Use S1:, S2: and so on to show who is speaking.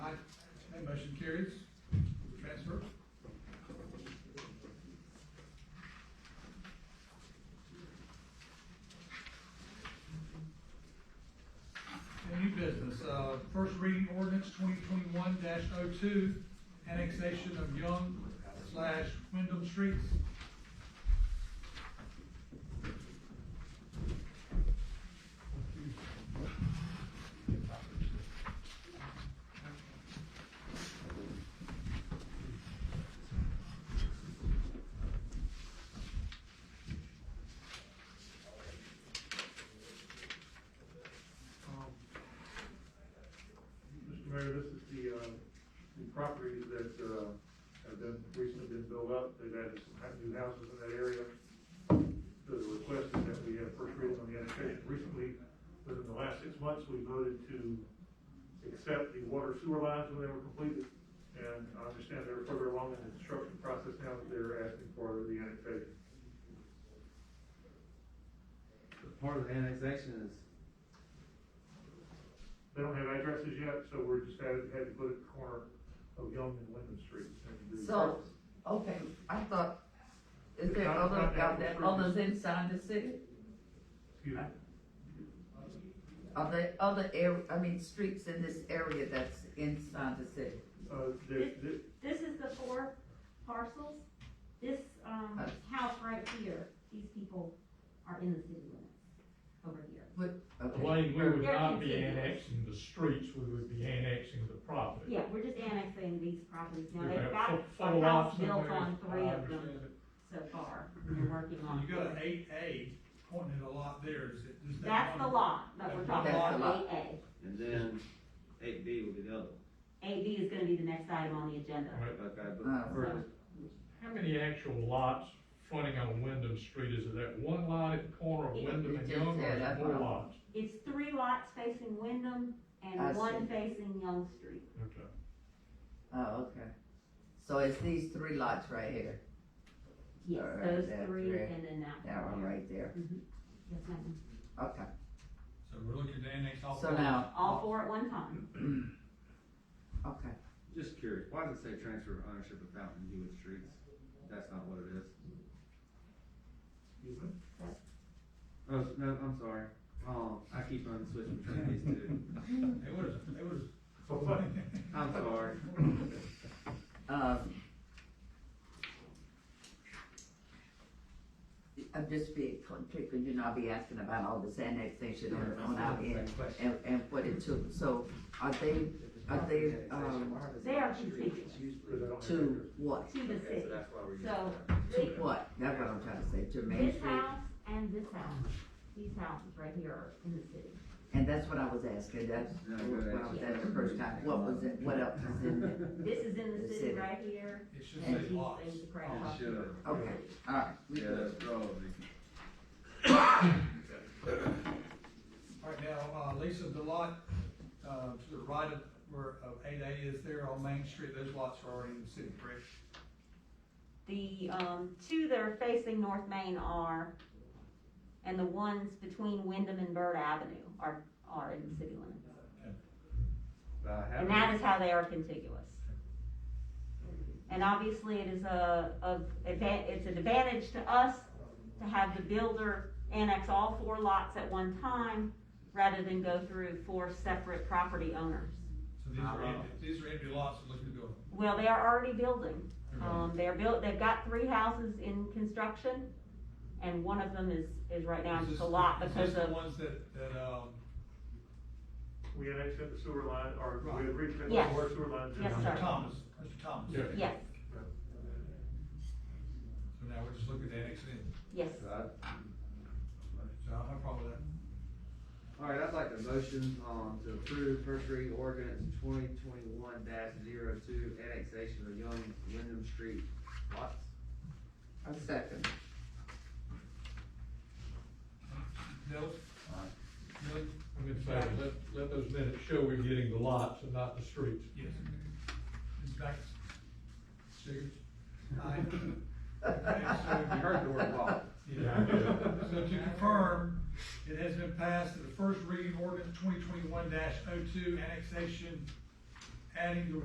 S1: Motion carries. Transfer. And new business, uh, first reading ordinance twenty twenty-one 2 annexation of Young slash Wyndham Streets.
S2: Um, Mr. Mayor, this is the, uh, the properties that, uh, have been, recently been built up, they've added some ha- new houses in that area. The request is that we have first reading on the annexation, recently, within the last six months, we voted to accept the water sewer lines when they were completed, and I understand they're further along in the construction process now that they're asking for the annexation.
S3: Part of the annexation is,
S2: They don't have addresses yet, so we're just had, had to put it at the corner of Young and Linden Streets. and do-
S4: So, okay, I thought, is there other, are there others inside the city?
S2: Excuse me.
S4: Are there other air, I mean, streets in this area that's inside the city?
S2: Uh, the, the,
S5: This is the four parcels. This, um, house right here, these people are in the city limits over here.
S4: Okay.
S6: Elaine, we would
S5: They're
S6: not be
S5: contiguous.
S6: annexing the streets, we would be annexing the property.
S5: Yeah, we're just annexing these properties now.
S6: We
S5: They've
S6: have
S5: got
S6: four-
S5: a house
S6: four lots in
S5: built
S6: there.
S5: on three
S6: I
S5: of them
S6: understand
S5: so far. They're working on.
S1: You got an eight A pointing at a lot there, is it? just that
S5: That's the
S1: one?
S5: lot that we're talking
S4: That's the
S5: about,
S4: lot.
S5: eight
S3: and then eight B will be the other.
S5: A. A B is gonna be the next item on the agenda.
S6: it. Right.
S3: Okay,
S4: Uh,
S3: but first,
S6: How many actual lots fronting on Wyndham Street, is it that one lot at the corner of
S4: It-
S6: Wyndham
S4: it
S6: and
S4: just
S6: Young, or
S4: said
S6: is it
S4: that's
S6: more
S4: what I-
S6: lots?
S5: It's three lots facing Wyndham
S4: I
S5: and one
S4: see.
S5: facing Young Street.
S6: Okay.
S4: Oh, okay. So it's these three lots right here,
S5: Yes,
S4: Alright,
S5: those
S4: that's
S5: three
S4: right.
S5: and then that.
S4: that one right there,
S5: Mhm. Yes, ma'am.
S4: okay.
S1: So we're looking to annex
S6: Oh,
S1: all.
S4: So
S1: four.
S4: now,
S5: All four at one time.
S4: okay,
S3: just curious, why does it say transfer of ownership of Fountain View and Streets? That's not what it is.
S2: excuse me.
S3: Oh, no, I'm sorry. Um, I keep on switching between these two.
S1: It was, it was.
S2: So, but,
S3: I'm sorry.
S4: um. I'm just being, because you know, I'll be asking about all this annexation on, on our end, and, and what it took, so are they, are they, um,
S5: They are contiguous.
S4: to what?
S5: To the
S3: Okay,
S5: city.
S3: so that's why we're using
S5: So,
S3: that.
S4: To
S5: thi-
S4: what? That's what I'm trying to say, to Main
S5: this
S4: Street,
S5: house and this house, these houses right here are in the city.
S4: and that's what I was asking, that's,
S3: No,
S4: well,
S3: good,
S4: that's the
S3: actually.
S4: first time, what was it, what else is in there?
S5: This is in
S4: The
S5: the city
S4: city.
S5: right here,
S1: It should
S5: and
S1: say
S5: these
S1: lots.
S5: things are
S3: It
S5: across.
S3: should.
S4: Okay, alright, we
S3: Yeah,
S4: good.
S3: that's probably.
S1: All right, now, uh, Lisa, the lot, uh, to the right of, where, of eight A is there on Main Street, those lots are already in the city, correct?
S5: The, um, two that are facing North Main are, and the ones between Wyndham and Bird Avenue are, are in the city limits.
S3: But I haven't-
S5: And that is how they are contiguous. And obviously, it is a, of, advan- it's an advantage to us to have the builder annex all four lots at one time rather than go through four separate property owners.
S1: So these are, empty-
S6: Uh-huh.
S1: these are empty lots, we're looking to build.
S5: Well, they are already building.
S1: Mm-hmm.
S5: Um, they're built, they've got three houses in construction and one of them is, is right now
S1: Is
S5: just a
S1: this-
S5: lot
S1: is
S5: because
S1: this the
S5: of,
S1: Ones that, that, um,
S2: we annexed the sewer line, or we
S1: Right.
S2: agreed to the
S5: Yes.
S2: water sewer line. to-
S5: Yes,
S1: Mr.
S5: sir.
S1: Thomas, Mr. Thomas.
S6: Yeah.
S5: yes,
S1: So now we're just looking to annex it in.
S5: yes.
S3: So I-
S1: So I don't have a problem with that.
S3: All right, I'd like a motion, um, to approve first reading ordinance twenty twenty-one 2 annexation of Young Wyndham Street lots.
S4: A second.
S1: Dills? Dills?
S6: I'm in favor, let, let those minutes show we're getting the lots and not the streets.
S1: Yes. Ms. Backus? Sugar? Aye. Okay, so-
S3: You heard the word lot.
S1: Yeah, I did. So to confirm, it has been passed that the first reading ordinance twenty twenty-one 2 annexation, oh adding the